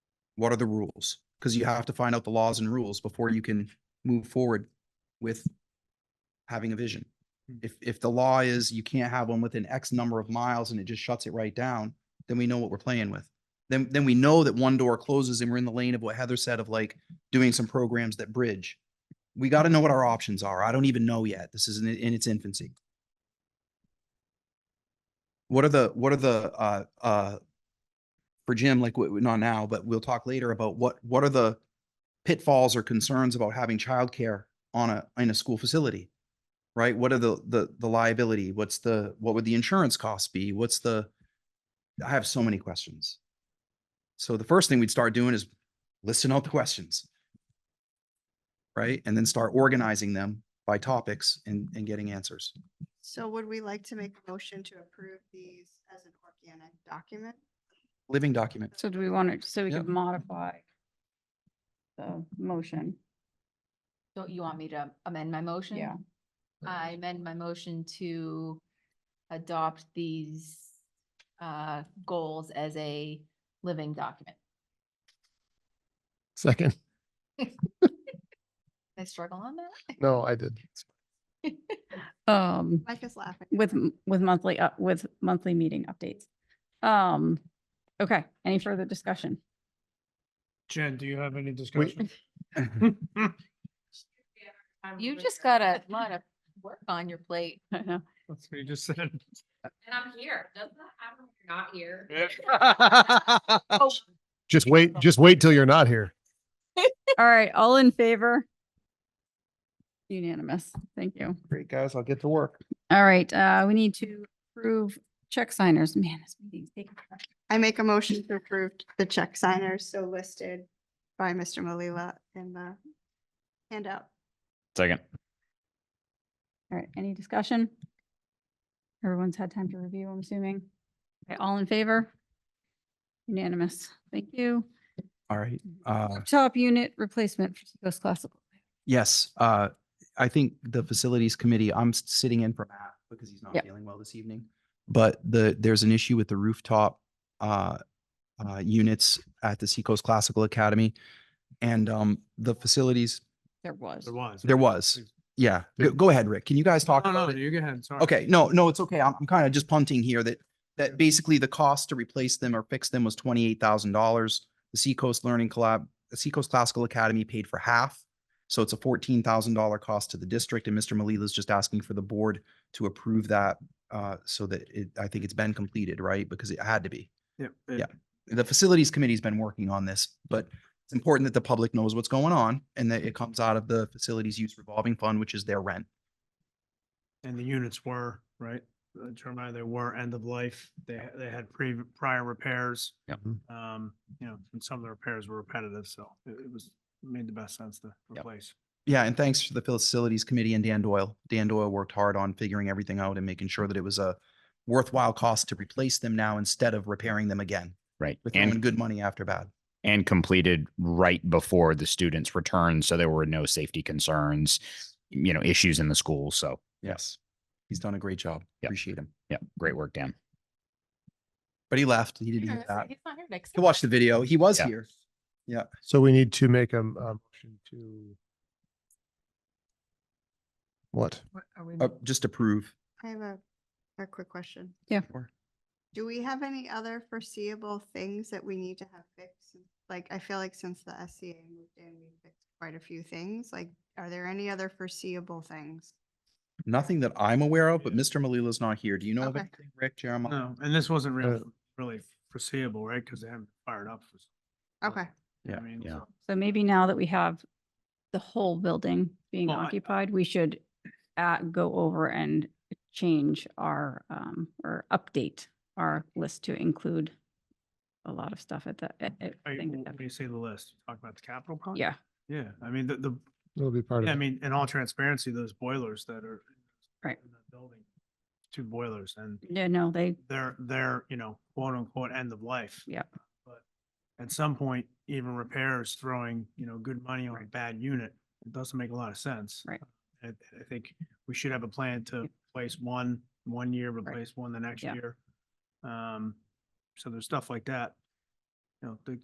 what are the rules? Because you have to find out the laws and rules before you can move forward with having a vision. If, if the law is you can't have one within X number of miles and it just shuts it right down, then we know what we're playing with. Then, then we know that one door closes and we're in the lane of what Heather said of like doing some programs that bridge. We got to know what our options are. I don't even know yet. This is in, in its infancy. What are the, what are the, uh, uh, for Jim, like w- not now, but we'll talk later about what, what are the pitfalls or concerns about having childcare on a, in a school facility? Right? What are the, the, the liability? What's the, what would the insurance costs be? What's the, I have so many questions. So the first thing we'd start doing is listing out the questions. Right? And then start organizing them by topics and, and getting answers. So would we like to make a motion to approve these as an organic document? Living document. So do we want it, so we Yeah. could modify the motion? So you want me to amend my motion? Yeah. I amend my motion to adopt these uh, goals as a living document. Second. I struggle on that. No, I did. Um, Mike is laughing. with, m- with monthly, up with monthly meeting updates. Um, okay, any further discussion? Jen, do you have any discussion? You just got a lot of work on your plate. I know. That's what you just said. And I'm here. Doesn't that happen when you're not here? Oh, Just wait, just wait till you're not here. All right, all in favor? Unanimous. Thank you. Great, guys. I'll get to work. All right, uh, we need to approve check signers. Man, this meeting's taking. forever. I make a motion to approve the check signers so listed by Mr. Malila in the handout. Second. All right, any discussion? Everyone's had time to review, I'm assuming. Okay, all in favor? Unanimous. Thank you. All right. Uh, Top unit replacement for Seacoast Classical. Yes, uh, I think the facilities committee, I'm s- sitting in for Matt because he's not Yep. feeling well this evening. But the, there's an issue with the rooftop, uh, uh, units at the Seacoast Classical Academy. And, um, the facilities, There was. There was. Oh, There was. yeah, go, Did- go ahead, Rick. Can you guys talk No, no, about it? you go ahead, sorry. Okay, no, no, it's okay. I'm, I'm kind of just punting here that, that basically the cost to replace them or fix them was twenty-eight thousand dollars. The Seacoast Learning Collab, the Seacoast Classical Academy paid for half. So it's a fourteen thousand dollar cost to the district and Mr. Malila is just asking for the board to approve that uh, so that it, I think it's been completed, right? Because it had to be. Yep, Yeah. The facilities committee's been working on this, but it's important that the public knows what's going on and that it comes out of the facilities use revolving fund, which is their rent. And the units were, right? Uh, Jeremiah, they were end of life. They, ha- they had pre, prior repairs. Yep. Um, you know, and some of the repairs were repetitive, so it, it was, made the best sense to replace. Yeah, and thanks to the facilities committee and Dan Doyle. Dan Doyle worked hard on figuring everything out and making sure that it was a worthwhile cost to replace them now instead of repairing them again. Right. We're throwing And, good money after bad. and completed right before the students returned. So there were no safety concerns, you know, issues in the school. So Yes. He's done a great job. Yep. Appreciate him. yeah, great work, Dan. But he left. He didn't he's hear that. not here next. He watched the video. He was Yeah. here. So we need to make a, a motion to. What? Uh, just approve. I have a, a quick question. Sure. Do we have any other foreseeable things that we need to have fixed? Like, I feel like since the SCA moved in, we fixed quite a few things. Like, are there any other foreseeable things? Nothing that I'm aware of, but Mr. Malila's not here. Do you know of Okay. anything, Rick, Jeremiah? No, and this wasn't Uh, really, really foreseeable, right? Because they haven't fired up. for s- Okay, Yeah, I mean, yeah. so- So maybe now that we have the whole building being Well, I- occupied, we should uh, go over and change our, um, or update our list to include a lot of stuff at the, at- at- Are I you- think at When the- you say the list, you talk about the capital project? yeah. Yeah, I mean, the, the, It'll be part of Yeah, I it. mean, in all transparency, those boilers that are. Right. in that Building, two boilers and Yeah, no, they, they're, they're, you know, quote unquote, end of life. Yep. But at some point, even repairs throwing, you know, good money on a bad unit, it doesn't make a lot of sense. Right. I, I think we should have a plan to place one, one year, replace one the next Yeah. year. Um, so there's stuff like that. You know, the